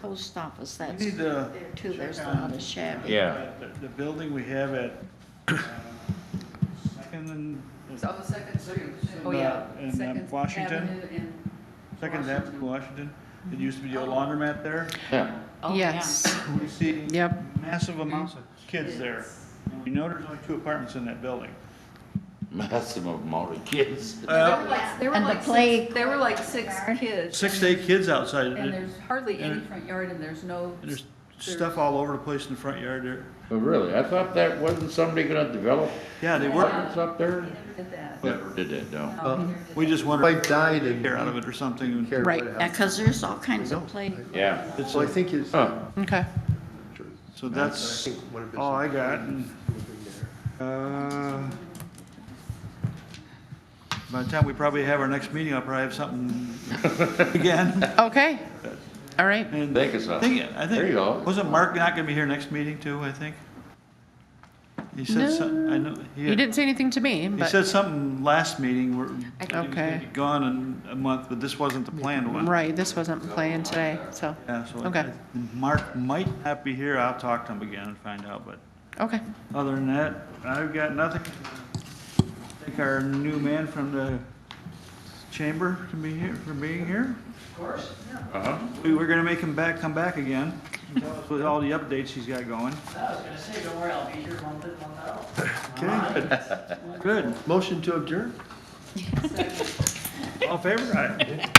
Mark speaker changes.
Speaker 1: post office,
Speaker 2: We
Speaker 1: that's
Speaker 2: need to.
Speaker 1: there too,
Speaker 2: check
Speaker 1: there's a
Speaker 2: on-
Speaker 1: lot of shabby.
Speaker 3: Yeah.
Speaker 2: The- The building we have at, um, Second and,
Speaker 4: It's on the second street.
Speaker 2: Oh, yeah. And, um,
Speaker 4: Second
Speaker 2: Washington?
Speaker 4: Avenue and
Speaker 2: Second Avenue, Washington, it used to be the old laundromat there.
Speaker 3: Yeah,
Speaker 5: Oh, yeah.
Speaker 1: Yes,
Speaker 2: We see
Speaker 1: Yep.
Speaker 2: massive amounts of kids there. And We know there's only two apartments in that building.
Speaker 3: massive amount of kids.
Speaker 4: There were like- there were
Speaker 1: And the
Speaker 4: like six-
Speaker 1: plague-
Speaker 4: There were like six kids.
Speaker 2: Uh, Six to eight kids outside,
Speaker 4: And
Speaker 2: and
Speaker 4: there's hardly
Speaker 2: and
Speaker 4: any
Speaker 2: it-
Speaker 4: front yard and there's no.
Speaker 2: there's stuff all over the place in the front yard there.
Speaker 3: But really, I thought that wasn't somebody gonna develop
Speaker 2: Yeah, they were,
Speaker 3: apartments up there?
Speaker 4: Did that. Um,
Speaker 3: Never did it, no.
Speaker 2: we just wondered,
Speaker 6: Wife died and.
Speaker 2: care out of it or something.
Speaker 6: Care
Speaker 1: right,
Speaker 6: what happened.
Speaker 1: because there's all kinds of play.
Speaker 3: Yeah.
Speaker 2: It's
Speaker 6: Well, I
Speaker 2: a-
Speaker 6: think his.
Speaker 3: Huh.
Speaker 5: Okay.
Speaker 2: So that's
Speaker 6: I think one of his-
Speaker 2: all Oh, I got. and, uh, By the time we probably have our next meeting, I'll probably have something again.
Speaker 5: Okay. All right.
Speaker 2: And
Speaker 3: Think of
Speaker 2: I
Speaker 3: something.
Speaker 2: think, I
Speaker 3: There you go.
Speaker 2: think, wasn't Mark not gonna be here next meeting too, I think? He said something, I know,
Speaker 5: He
Speaker 2: he,
Speaker 5: didn't say anything to me,
Speaker 2: he
Speaker 5: but
Speaker 2: said something last meeting where. he was gonna
Speaker 5: Okay.
Speaker 2: be Gone in a month, but this wasn't the planned one.
Speaker 5: right, this wasn't planned today. So,
Speaker 2: Yeah, so I-
Speaker 5: Okay.
Speaker 2: Mark might not be here, I'll talk to him again and find out, but
Speaker 5: okay.
Speaker 2: other than that, I've got nothing. Thank our new man from the chamber to be here, for being here.
Speaker 3: Uh-huh.
Speaker 2: We were gonna make him back, come back again, with all the updates he's got going.
Speaker 7: I was gonna say, don't worry, I'll be here month in, month out.
Speaker 2: Okay, good.
Speaker 6: Motion to adjourn?
Speaker 2: All in favor? Aye.